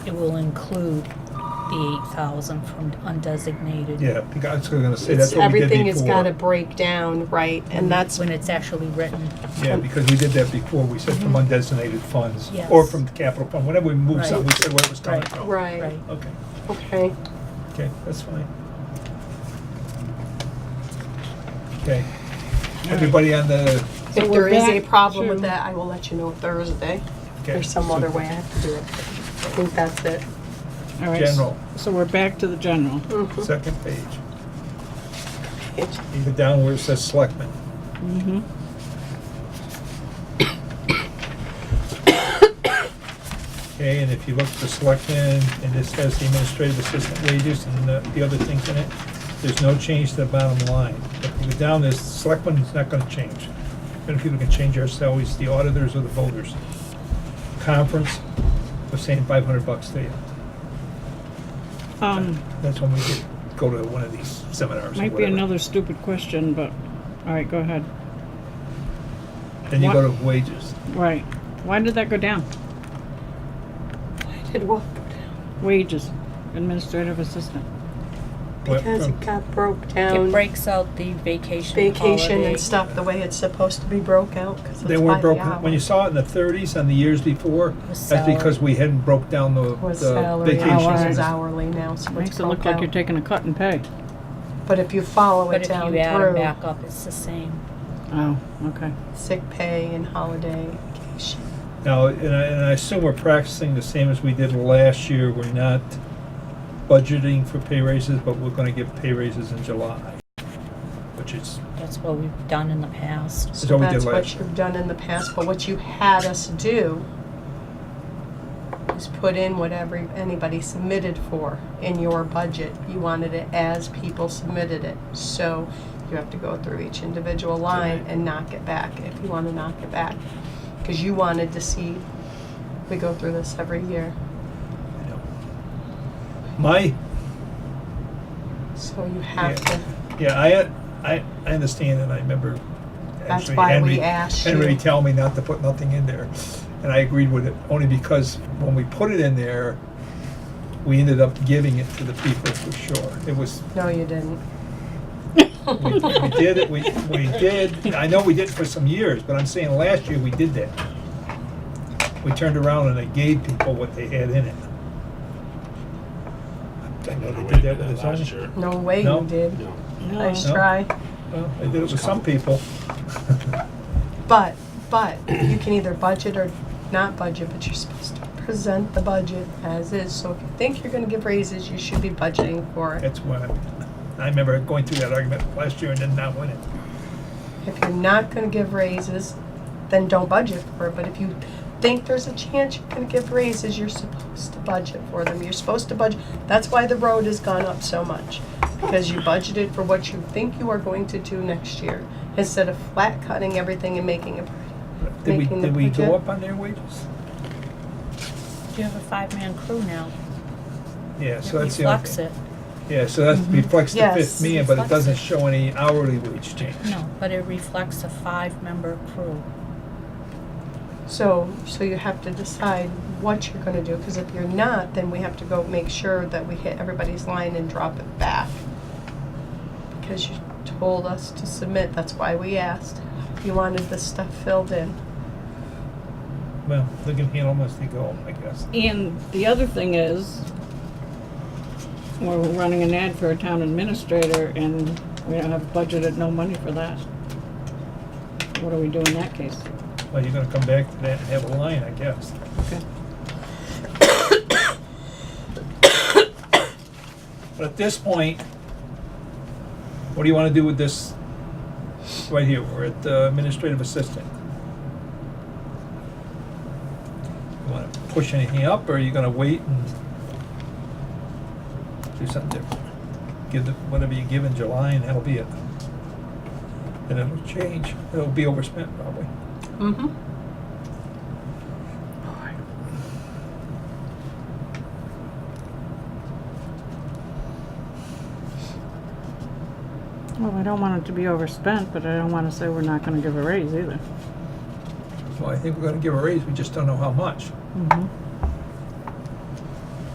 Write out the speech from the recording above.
It will include the eight thousand from undesignated. Yeah, because I was gonna say, It's, that's what we did before. everything has got to break down, right? And that's Mm-hmm. When it's actually written, Yeah, because we did that before, we said from Mm-hmm. undesignated funds, Yes. or from the capital fund, whenever we moved something, we Right. said where it was coming Right. from. right. right? Okay, Okay. okay, that's fine. Okay, everybody on the, If there we're is a back problem with to- that, I will let you know Thursday. If Okay, There's some so- other way I have to do it. I think that's it. All right, s- General. So we're back to the general. second page, either down where it says selectmen. Okay, and if you look for selectmen, and this has the administrative assistant wages and the- the other things in it, there's no change to the bottom line. If you go down, this selectmen is not gonna change. Then people can change our salaries, the auditors or the voters. Conference, we're saying five hundred bucks to you. Um, That's when we could go to one of these seminars or might be whatever. another stupid question, but, all right, go ahead. Then you go to wages. Right. Why did that go down? I did what? Wages, administrative assistant. Went Because from- it got broke It down. breaks out the vacation, Vacation holiday. and stuff, the way it's supposed to be broke out, because it's They by weren't the broken, hour. when you saw it in the thirties and the years before, Was that's because salary. we hadn't broke down the Was the salary, hours vacation. is hours. hourly now, so it's Makes it look broke like you're out. taking a cut in pay. But if you follow But it if you down add them through, back up, it's the same. Oh, okay. sick pay and holiday, vacation. Now, and I, and I assume we're practicing the same as we did last year, we're not budgeting for pay raises, but we're gonna give pay raises in July. Which is, That's what we've done in the past. that's what we did That's last what year. you've done in the past, but what you had us do is put in whatever anybody submitted for in your budget. You wanted it as people submitted it. So you have to go through each individual line and knock it back if you want to knock it back. Because you wanted to see, we go through this every year. I know. My, So you have Yeah. to, yeah, I, I, I understand and I remember That's actually why we Henry, asked Henry you. tell me not to put nothing in there. And I agreed with it, only because when we put it in there, we ended up giving it to the people for sure. It was, no, you didn't. we we did, it. we, we did, I know we did for some years, but I'm saying last year we did that. We turned around and I gave people what they had in it. I know they did that with the zoning. No way No. you did. No. No. Nice try. Well, They did it with some people. But, but you can either budget or not budget, but you're supposed to present the budget as is. So if you think you're gonna give raises, you should be budgeting for it. That's why, I remember going through that argument last year and then not winning. If you're not gonna give raises, then don't budget for it. But if you think there's a chance you're gonna give raises, you're supposed to budget for them. You're supposed to budget. That's why the road has gone up so much. Because you budgeted for what you think you are going to do next year instead of flat cutting everything and making it. Did we, Making the did we go budget. up on their wages? You have a five-man crew now. Yeah, It so that's the only reflects thing. it. Yeah, so that Mm-hmm. reflects the fifth Yes, million, but it reflects doesn't it. show any hourly wage change. No, but it reflects a five-member crew. So, so you have to decide what you're gonna do, because if you're not, then we have to go make sure that we hit everybody's line and drop it back. Because you told us to submit, that's why we asked. You wanted this stuff filled in. Well, look at here, almost they go, I guess. And the other thing is, we're running an ad for a town administrator and we don't have budgeted no money for that. What do we do in that case? Well, you're gonna come back to that and have a line, I guess. Okay. But at this point, what do you wanna do with this? Right here, we're at the administrative assistant. You wanna push anything up, or are you gonna wait and do something different? Give the, whatever you give in July and that'll be it. And it'll change, it'll be overspent probably. Mm-hmm. Well, I don't want it to be overspent, but I don't want to say we're not going to give a raise either. Well, I think we're gonna give a raise, we just don't know how much. Mm-hmm.